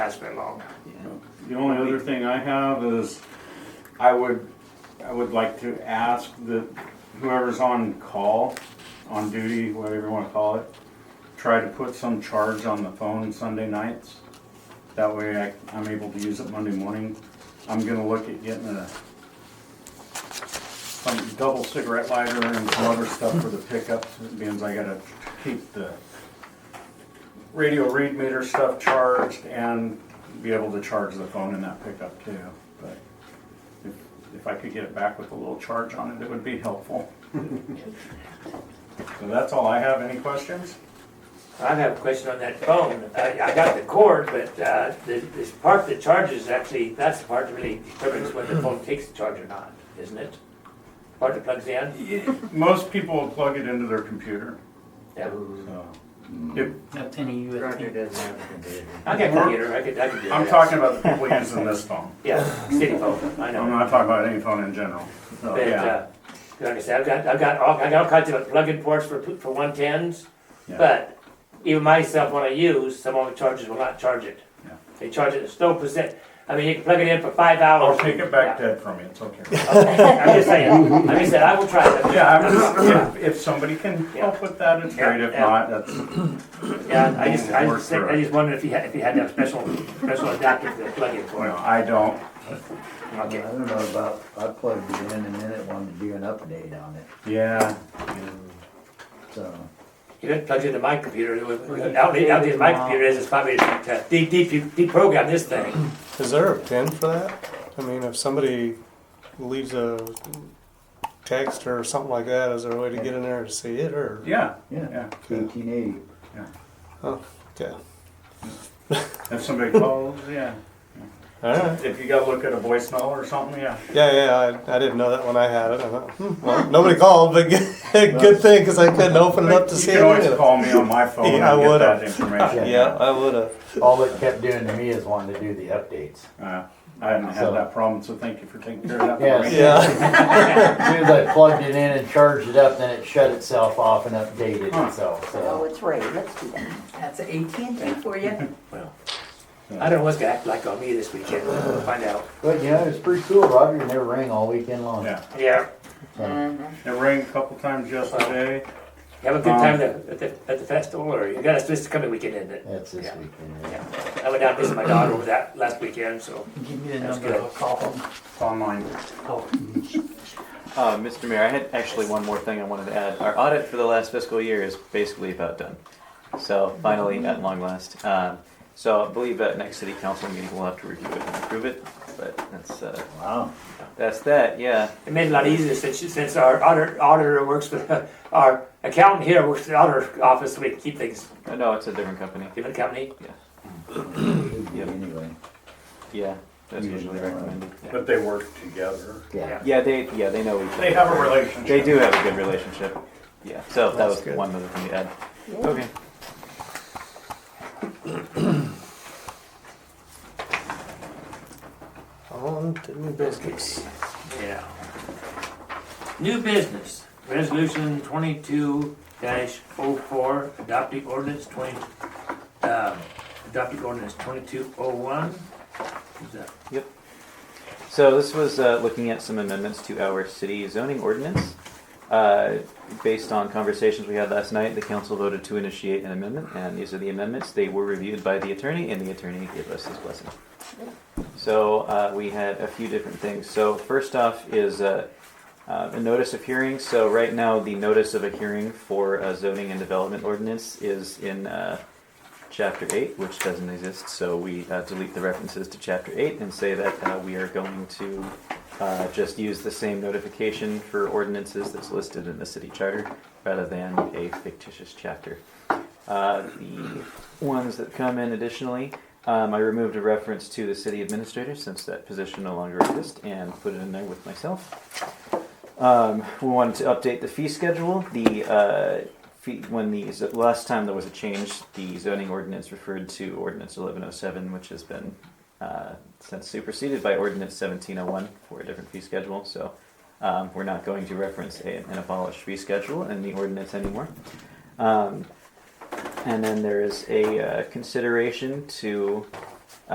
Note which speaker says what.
Speaker 1: has been long.
Speaker 2: The only other thing I have is, I would, I would like to ask that whoever's on call, on duty, whatever you wanna call it, try to put some charge on the phone Sunday nights. That way I, I'm able to use it Monday morning. I'm gonna look at getting a, some double cigarette lighter and some other stuff for the pickups, being as I gotta keep the radio read meter stuff charged and be able to charge the phone in that pickup too. But if, if I could get it back with a little charge on it, it would be helpful. So that's all I have. Any questions?
Speaker 1: I have a question on that phone. I, I got the cord, but, uh, the, this part that charges actually, that's the part that really determines whether the phone takes the charge or not, isn't it? Part that plugs in?
Speaker 2: Most people plug it into their computer,
Speaker 1: Yeah.
Speaker 2: so. If-
Speaker 3: No penny you would
Speaker 4: Roger
Speaker 3: think.
Speaker 4: doesn't have a computer.
Speaker 1: I got a computer, I could, I could do that.
Speaker 2: I'm talking about the people using this phone.
Speaker 1: Yeah, city phone, I
Speaker 2: I'm
Speaker 1: know.
Speaker 2: not talking about any phone in general. So,
Speaker 1: But,
Speaker 2: yeah.
Speaker 1: uh, like I said, I've got, I've got all, I got all kinds of plug-in ports for, for one tens,
Speaker 2: Yeah.
Speaker 1: but even myself, when I use, some of the chargers will not charge it.
Speaker 2: Yeah.
Speaker 1: They charge it, it's no percent, I mean, you can plug it in for five hours.
Speaker 2: I'll take it
Speaker 1: Yeah.
Speaker 2: back dead from you. It's okay.
Speaker 1: I'm just saying, I'm just saying, I will try that.
Speaker 2: Yeah, I'm just, if, if somebody can help with that, it's great. If
Speaker 1: Yeah, yeah.
Speaker 2: not, that's,
Speaker 1: Yeah, I just, I
Speaker 2: Works
Speaker 1: just, think-
Speaker 2: for
Speaker 1: I
Speaker 2: us.
Speaker 1: just wondered if you had, if you had that special, special adapter for the plug-in for
Speaker 2: no,
Speaker 1: it.
Speaker 2: I don't.
Speaker 4: I
Speaker 1: Okay.
Speaker 4: don't know about, I plugged it in and then it wanted to do an update on it,
Speaker 2: Yeah,
Speaker 4: so.
Speaker 1: You didn't plug into my computer, out, out in my computer is, it's probably to de- de- deprogram this thing.
Speaker 5: Is there a pin for that? I mean, if somebody leaves a text or something like that, is there a way to get in there to see it or?
Speaker 2: yeah,
Speaker 4: Yeah,
Speaker 2: yeah.
Speaker 4: eighteen eighty.
Speaker 5: Okay.
Speaker 2: If somebody calls, yeah.
Speaker 5: All right.
Speaker 2: If you gotta look at a voicemail or something, yeah.
Speaker 5: Yeah, yeah. I, I didn't know that when I had it. I thought, hmm, well, nobody called, but good, good thing because I couldn't open it up to
Speaker 2: You
Speaker 5: see
Speaker 2: could
Speaker 5: it.
Speaker 2: always
Speaker 5: anyway.
Speaker 2: call me on my phone and
Speaker 5: Yeah, I
Speaker 2: get that
Speaker 5: would've.
Speaker 2: information.
Speaker 5: Yeah, I would have.
Speaker 4: All it kept doing to me is wanting to do the updates.
Speaker 2: Uh, I haven't had that problem, so thank you for taking care of that for
Speaker 4: Yes.
Speaker 2: me.
Speaker 5: Yeah.
Speaker 4: As soon as I plugged it in and charged it up, then it shut itself off and updated itself,
Speaker 6: Oh,
Speaker 4: so.
Speaker 6: it's Ray, let's do that. That's at and t for you.
Speaker 1: I don't know what's gonna act like on me this weekend, we'll find out.
Speaker 4: But, you know, it's pretty cool, Roger never rang all weekend long.
Speaker 2: Yeah,
Speaker 1: Yeah,
Speaker 4: So,
Speaker 2: it rang a couple times yesterday.
Speaker 1: have a good time
Speaker 2: Um,
Speaker 1: at the, at the, at the festival, or you got us this coming weekend, isn't it?
Speaker 4: That's this
Speaker 1: Yeah.
Speaker 4: weekend. yeah.
Speaker 1: Yeah. I went down to visit my daughter over that last weekend, so.
Speaker 3: Give me the
Speaker 1: That's
Speaker 3: number,
Speaker 1: good.
Speaker 3: I'll call them.
Speaker 2: It's online.
Speaker 7: Uh, Mr. Mayor, I had actually one more thing I wanted to add. Our audit for the last fiscal year is basically about done. So finally, at long last. Um, so I believe at next city council meeting, we'll have to review it and approve it. But that's, uh,
Speaker 4: Wow.
Speaker 7: that's that, yeah.
Speaker 1: It made it a lot easier since, since our auditor, auditor works for, the- our accountant here works for the auditor office, so we can keep things,
Speaker 7: Uh, No, it's a different company.
Speaker 1: different company.
Speaker 4: Should be Anyway,
Speaker 7: Yeah, that's usually recommended.
Speaker 2: But they work together.
Speaker 4: yeah.
Speaker 1: Yeah.
Speaker 7: Yeah, they, yeah, they know each other.
Speaker 2: They have a relationship.
Speaker 7: They do have a good relationship. Yeah, so that was one other thing to add. Okay.
Speaker 5: On to new business.
Speaker 1: Yeah. New business, resolution twenty-two dash oh four, adopting ordinance twenty, um, adopting ordinance twenty-two oh one.
Speaker 7: Yep. So this was uh, looking at some amendments to our city zoning ordinance. Uh, Based on conversations we had last night, the council voted to initiate an amendment, and these are the amendments. They were reviewed by the attorney, and the attorney gave us his blessing. So uh, we had a few different things. So first off is uh, uh, a notice of hearing. So right now, the notice of a hearing for a zoning and development ordinance is in uh, chapter 8, which doesn't exist, so we uh, delete the references to chapter 8 and say that uh, we are going to uh, just use the same notification for ordinances that's listed in the city charter rather than a fictitious chapter. Uh, the ones that come in additionally, um, I removed a reference to the city administrator since that position no longer exists and put it in there with myself. Um, we wanted to update the fee schedule. The uh, fee, when the z- last time there was a change, the zoning ordinance referred to ordinance 1107, which has been uh, since superseded by ordinance 1701 for a different fee schedule. So um, we're not going to reference a, an abolished fee schedule in the ordinance anymore. Um, and then there is a uh, consideration to